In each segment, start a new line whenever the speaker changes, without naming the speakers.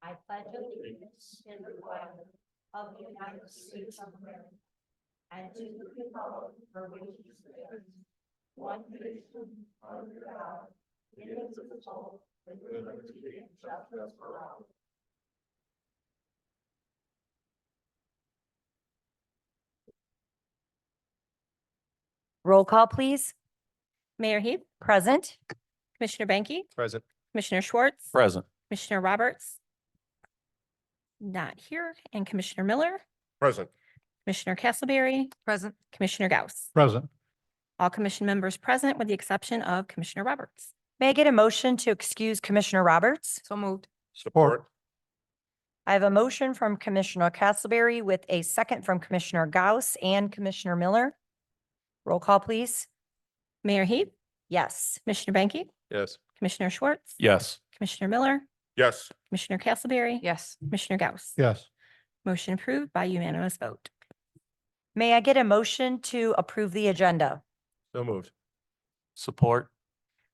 I pledge allegiance to the flag of the United States of America and to the republic for which it stands, one nation under God, indivisible, with liberty and justice for all.
Roll call, please.
Mayor Heath,
Present.
Commissioner Banky,
Present.
Commissioner Schwartz,
Present.
Commissioner Roberts. Not here, and Commissioner Miller,
Present.
Commissioner Castleberry,
Present.
Commissioner Gauss.
Present.
All commission members present with the exception of Commissioner Roberts.
May I get a motion to excuse Commissioner Roberts? So moved.
Support.
I have a motion from Commissioner Castleberry with a second from Commissioner Gauss and Commissioner Miller. Roll call, please.
Mayor Heath,
Yes.
Commissioner Banky,
Yes.
Commissioner Schwartz.
Yes.
Commissioner Miller,
Yes.
Commissioner Castleberry.
Yes.
Commissioner Gauss.
Yes.
Motion approved by unanimous vote.
May I get a motion to approve the agenda?
So moved. Support.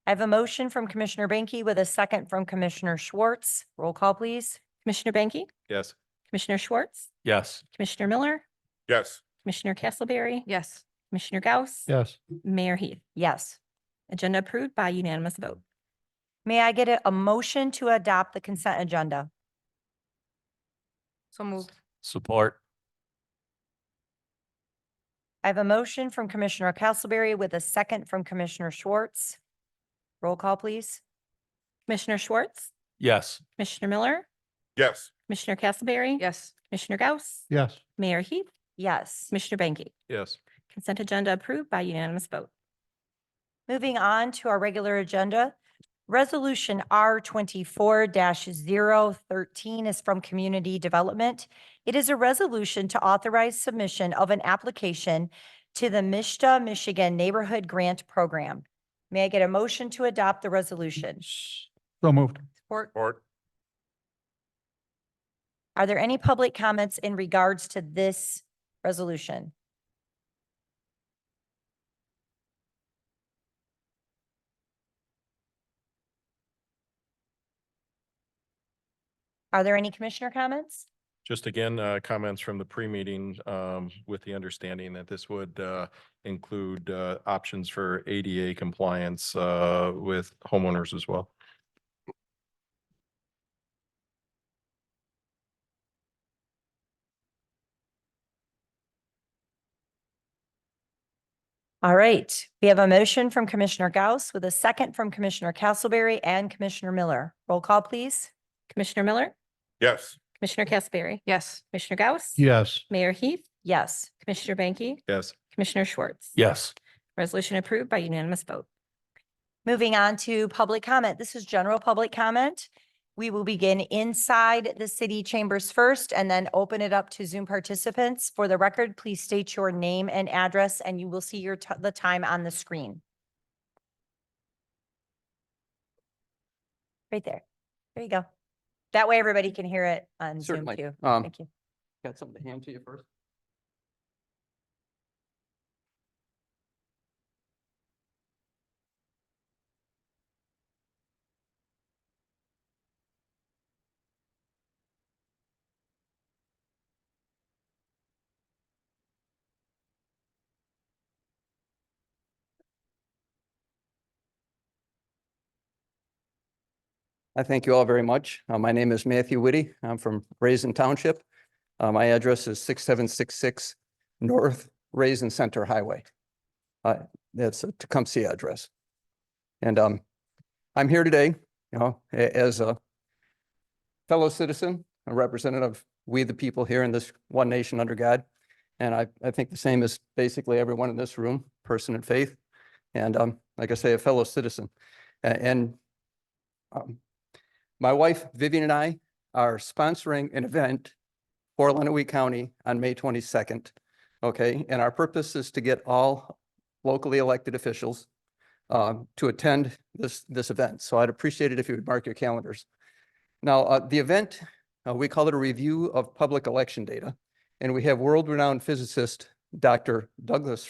I have a motion from Commissioner Banky with a second from Commissioner Schwartz. Roll call, please.
Commissioner Banky,
Yes.
Commissioner Schwartz,
Yes.
Commissioner Miller,
Yes.
Commissioner Castleberry,
Yes.
Commissioner Gauss,
Yes.
Mayor Heath.
Yes.
Agenda approved by unanimous vote.
May I get a, a motion to adopt the consent agenda? So moved.
Support.
I have a motion from Commissioner Castleberry with a second from Commissioner Schwartz. Roll call, please.
Commissioner Schwartz,
Yes.
Commissioner Miller,
Yes.
Commissioner Castleberry.
Yes.
Commissioner Gauss,
Yes.
Mayor Heath,
Yes.
Commissioner Banky.
Yes.
Consent agenda approved by unanimous vote.
Moving on to our regular agenda. Resolution R twenty-four 13 is from Community Development. It is a resolution to authorize submission of an application to the Mishta, Michigan Neighborhood Grant Program. May I get a motion to adopt the resolution?
So moved.
Support.
Support.
Are there any public comments in regards to this resolution? Are there any commissioner comments?
Just again, uh, comments from the pre-meeting, um, with the understanding that this would, uh, include, uh, options for ADA compliance, uh, with homeowners as well.
All right, we have a motion from Commissioner Gauss with a second from Commissioner Castleberry and Commissioner Miller. Roll call, please.
Commissioner Miller,
Yes.
Commissioner Castleberry,
Yes.
Commissioner Gauss.
Yes.
Mayor Heath,
Yes.
Commissioner Banky,
Yes.
Commissioner Schwartz.
Yes.
Resolution approved by unanimous vote.
Moving on to public comment. This is general public comment. We will begin inside the city chambers first and then open it up to Zoom participants. For the record, please state your name and address and you will see your, ti- the time on the screen. Right there. There you go. That way everybody can hear it on Zoom
Certainly.
too.
Um,
Thank you.
Got something to hand to you first? I thank you all very much. Uh, My name is Matthew Whitty. I'm from Raisin Township. Uh, my address is six seven six six North Raisin Center Highway. Uh, that's a Tecumseh address. And, um, I'm here today, you know, a- as a fellow citizen, a representative, of we the people here in this one nation under God. And I, I think the same as basically everyone in this room, person in faith. And, um, like I say, a fellow citizen. A- And, um, my wife Vivian and I are sponsoring an event for Lenawee County on May twenty-second. Okay, and our purpose is to get all locally elected officials um, to attend this, this event. So I'd appreciate it if you would mark your calendars. Now, uh, the event, uh, we call it a review of public election data. And we have world-renowned physicist, Dr. Douglas